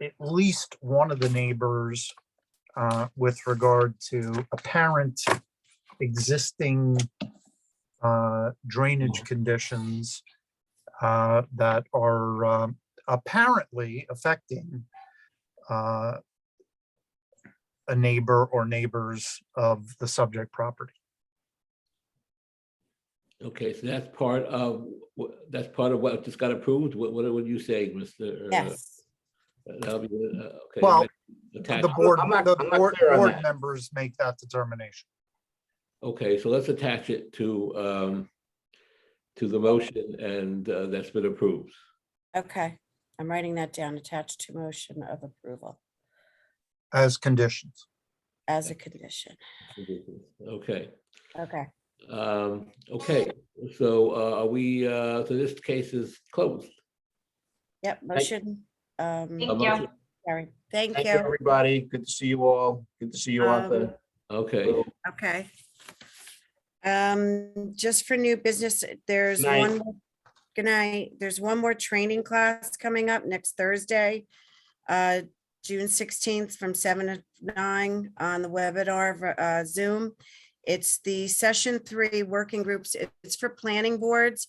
at least one of the neighbors uh, with regard to apparent existing uh, drainage conditions uh, that are um, apparently affecting uh, a neighbor or neighbors of the subject property. Okay, so that's part of, wh- that's part of what just got approved? What, what would you say, Mr.? uh, Yes, that'll be, uh, okay, Well, attach- The board, I'm not- the I'm not board, clear on board that. members make that determination. Okay, so let's attach it to, um, to the motion and uh, that's been approved. okay. I'm writing that down, attached to motion of approval As conditions. as a condition. Okay, Okay, um, okay, so uh, are we, uh, so this case is closed. yep, motion. um, A Thank you. motion- carried. Thank Thank you, you. everybody. Good to see you all. Good to see you out Um, there. Okay, Okay. Um, just for new business, there's Night. one, more- good night, there's one more training class coming up next Thursday. Uh, June sixteenth from seven to nine on the webinar of, uh, Zoom. It's the session three working groups. It- It's for planning boards.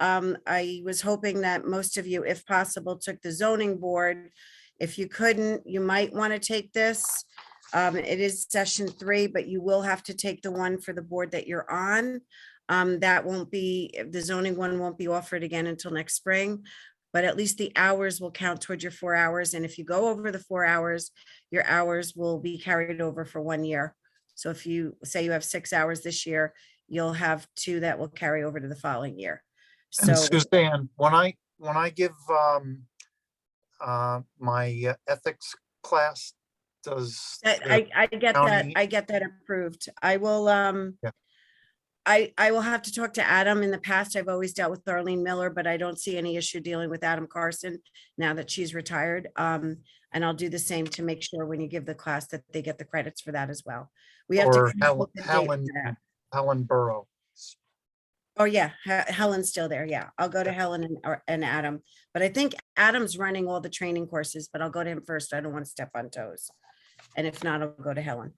Um, I was hoping that most of you, if possible, took the zoning board. If you couldn't, you might want to take this. Um, it is session three, but you will have to take the one for the board that you're on. Um, that won't be, the zoning one won't be offered again until next spring. But at least the hours will count toward your four hours, and if you go over the four hours, your hours will be carried over for one year. So if you say you have six hours this year, you'll have two that will carry over to the following year. So, And Suzanne, when I, when I give um, uh, my uh, ethics class, does. I, the- I- I get that, county- I get that approved. I will, um, Yeah. I, I will have to talk to Adam. In the past, I've always dealt with Darlene Miller, but I don't see any issue dealing with Adam Carson now that she's retired. Um, and I'll do the same to make sure when you give the class that they get the credits for that as well. We have Or to. Hel- consult the date Helen, for that. Helen Burrow. Oh, yeah, He- Helen's still there. Yeah, I'll go to Helen and, or- and Adam. But I think Adam's running all the training courses, but I'll go to him first. I don't want to step on toes. And if not, I'll go to Helen.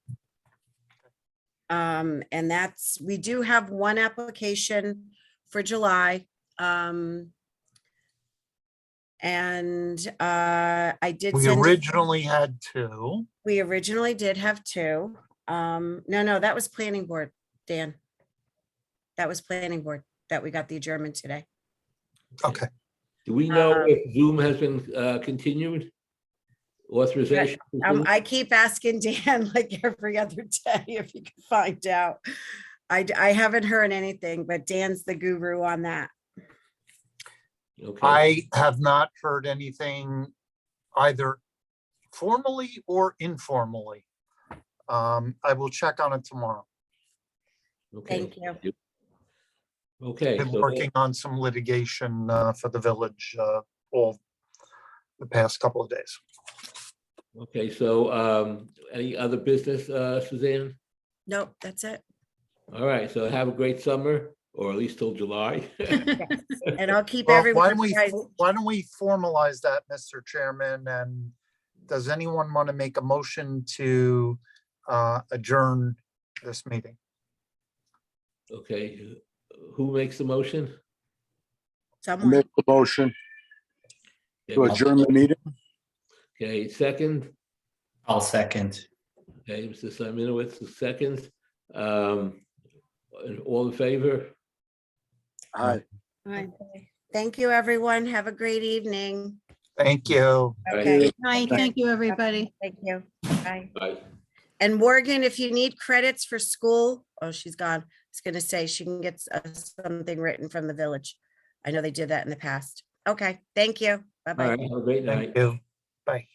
Um, and that's, we do have one application for July. Um, and, uh, I did. We send- originally had two. We originally did have two. Um, no, no, that was planning board, Dan. That was planning board that we got the adjournment today. Okay. do we know Um, if Zoom has been uh, continued? Authorization? Mm-hmm. Um, I keep asking Dan like every other day if he can find out. I, d- I haven't heard anything, but Dan's the guru on that. Okay. I have not heard anything either formally or informally. Um, I will check on it tomorrow. Okay, Thank you. Okay. Been so- working on some litigation, uh, for the village, uh, all the past couple of days. Okay, so um, any other business, uh, Suzanne? Nope, that's it. All right, so have a great summer, or at least till July. And I'll keep Well, why everyone. don't we, fo- why don't we formalize that, Mr. Chairman? And does anyone want to make a motion to, uh, adjourn this meeting? Okay, who- who makes the motion? Someone, Make the motion to adjourn the meeting. Okay, second, I'll second. okay, Mr. Simonowitz, the second. Um, and All in favor? Aye. Fine. thank you, everyone. Have a great evening. Thank you. All right. Okay, Night, Okay. thank you, everybody. thank you. Bye. Bye. And Morgan, if you need credits for school, oh, she's gone. I was gonna say she can get uh, something written from the village. I know they did that in the past. Okay, thank you. All Bye-bye. right, have a great night. Thank you. Bye.